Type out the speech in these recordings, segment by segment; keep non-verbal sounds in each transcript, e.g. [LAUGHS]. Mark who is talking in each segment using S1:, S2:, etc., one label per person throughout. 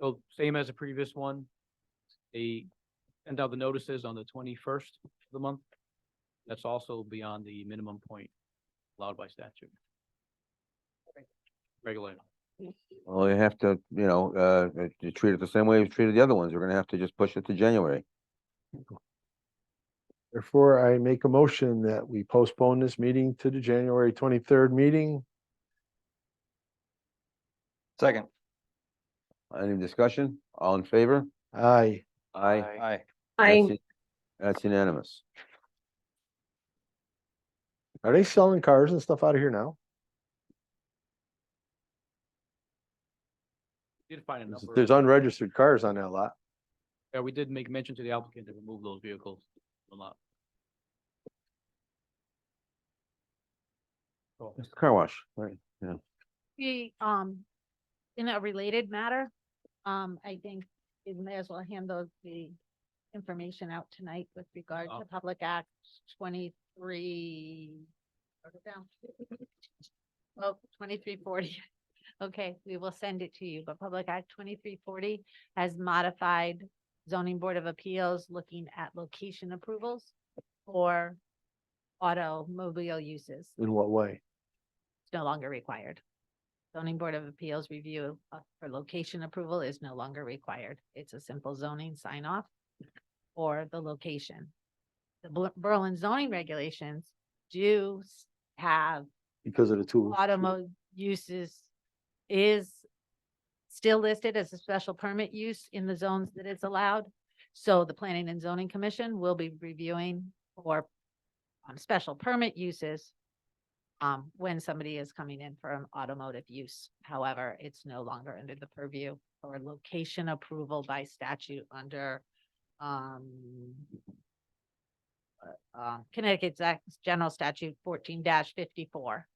S1: So same as the previous one. They send out the notices on the twenty-first of the month. That's also beyond the minimum point allowed by statute. Regulated.
S2: Well, you have to, you know, uh, uh, you treat it the same way you treated the other ones. We're gonna have to just push it to January.
S3: Therefore, I make a motion that we postpone this meeting to the January twenty-third meeting.
S4: Second.
S2: Any discussion? All in favor?
S3: Aye.
S2: Aye.
S4: Aye.
S2: That's
S5: I,
S2: u- That's unanimous.
S3: Are they selling cars and stuff out of here now?
S1: Did find a number.
S3: There's unregistered cars on that lot.
S1: Yeah, we did make mention to the applicant to remove those vehicles from the lot. So,
S2: Mr. Car wash, right, yeah.
S6: The, um, in a related matter, um, I think we may as well hand those the information out tonight with regard
S1: Oh.
S6: to Public Act twenty-three. wrote it down. Well, twenty-three forty. [LAUGHS] Okay, we will send it to you, but Public Act twenty-three forty has modified zoning board of appeals looking at location approvals for automobile uses
S3: In what way?
S6: is no longer required. Zoning Board of Appeals review uh, for location approval is no longer required. It's a simple zoning sign off or the location. The Bur- Berlin zoning regulations do s- have
S3: Because of the two.
S6: automo uses is still listed as a special permit use in the zones that it's allowed. So the Planning and Zoning Commission will be reviewing for um, special permit uses um, when somebody is coming in for an automotive use. However, it's no longer under the purview or location approval by statute under um, uh, uh, Connecticut Act's General Statute fourteen fifty-four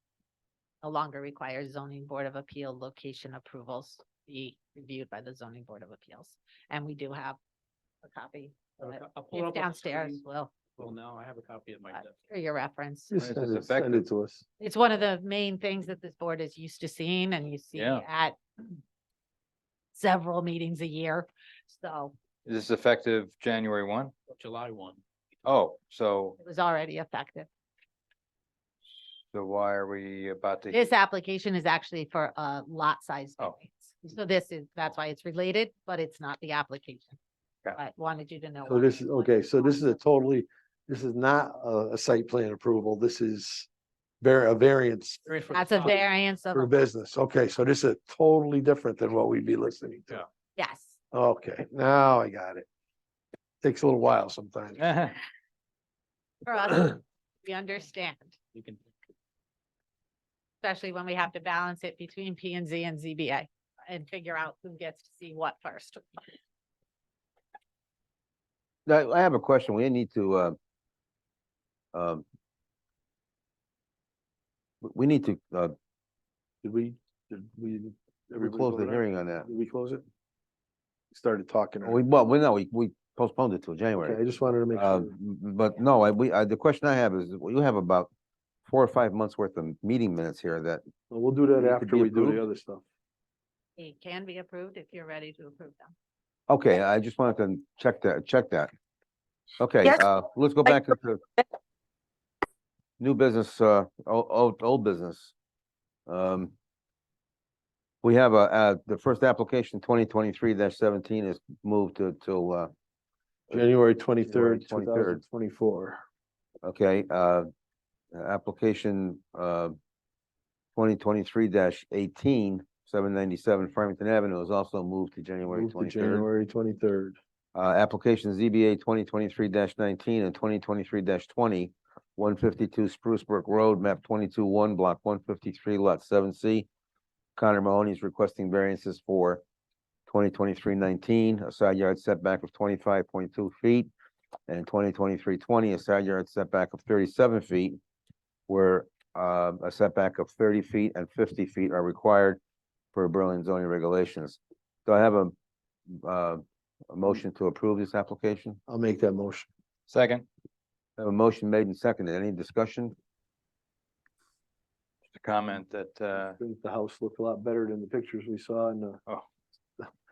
S6: no longer requires zoning board of appeal location approvals be reviewed by the zoning board of appeals. And we do have a copy. of it.
S1: I'll- I'll pull it up on
S6: It's
S1: the
S6: downstairs,
S1: screen.
S6: Will,
S1: Well, now I have a copy at my
S6: Uh,
S1: desk.
S6: for your reference.
S3: Just
S4: Right,
S3: Send it
S4: it's
S3: send
S4: effective.
S3: it to us.
S6: It's one of the main things that this board is used to seeing and you see
S4: Yeah.
S6: at several meetings a year. So
S4: Is this effective January one?
S1: July one.
S4: Oh, so,
S6: it was already effective.
S4: so why are we about to?
S6: This application is actually for a lot size
S4: Oh.
S6: variance. So this is, that's why it's related, but it's not the application.
S4: Okay.
S6: I wanted you to know.
S3: So
S6: what-
S3: this is,
S6: what
S3: okay, so this is
S6: on.
S3: a totally, this is not a, a site plan approval. This is var- a variance
S1: Variance for the
S6: That's a
S1: size.
S6: variance of,
S3: for
S6: a-
S3: business. Okay, so this is totally different than what we'd be listening to.
S6: yes.
S3: Okay, now I got it. Takes a little while sometimes. [CLEARS THROAT]
S6: For us, we understand,
S1: [LAUGHS] You can,
S6: especially when we have to balance it between P and Z and ZBA and figure out who gets to see what first.
S2: Now, I have a question. We need to, uh, um, we- we need to, uh,
S3: Did we, did we? everybody
S2: close the
S3: vote aye?
S2: hearing on that.
S3: Did we close it? Started talking.
S2: We, well, we know, we, we postponed it till
S3: Okay, I
S2: January.
S3: just wanted to make
S2: Uh,
S3: sure.
S2: but no, I, we, I, the question I have is, you have about four or five months worth of meeting minutes here that
S3: Well, We'll do that
S2: it could
S3: after
S2: be
S3: we do
S2: approved?
S3: the other stuff.
S6: It can be approved if you're ready to approve them.
S2: Okay, I just wanted to check that, check that. Okay,
S5: Yes.
S2: uh, let's go back into new business, uh, old, old, old business. Um, we have a, uh, the first application, twenty twenty-three seventeen is moved to, till, uh,
S3: January twenty-third, two
S2: 23rd.
S3: thousand twenty-four.
S2: okay, uh, uh, application, uh, twenty twenty-three dash eighteen, seven ninety-seven Farmington Avenue is also moved to January
S3: Move to
S2: twenty-third.
S3: January twenty-third.
S2: Uh, application ZBA twenty twenty-three nineteen and twenty twenty-three 20 152 Spruce Brook Road, map twenty-two one, block one fifty-three, lot seven C. Connor Mahoney is requesting variances for 2023-19, a side yard setback of twenty-five point two feet, and 2023-20, a side yard setback of thirty-seven feet, where, uh, a setback of thirty feet and fifty feet are required for Berlin zoning regulations. Do I have a, uh, a motion to approve this application.
S3: I'll make that motion.
S4: Second.
S2: I have a motion made and seconded. Any discussion?
S4: Just a Comment uh, that, uh,
S3: Uh, Think The house looked a lot better than the pictures we saw in the.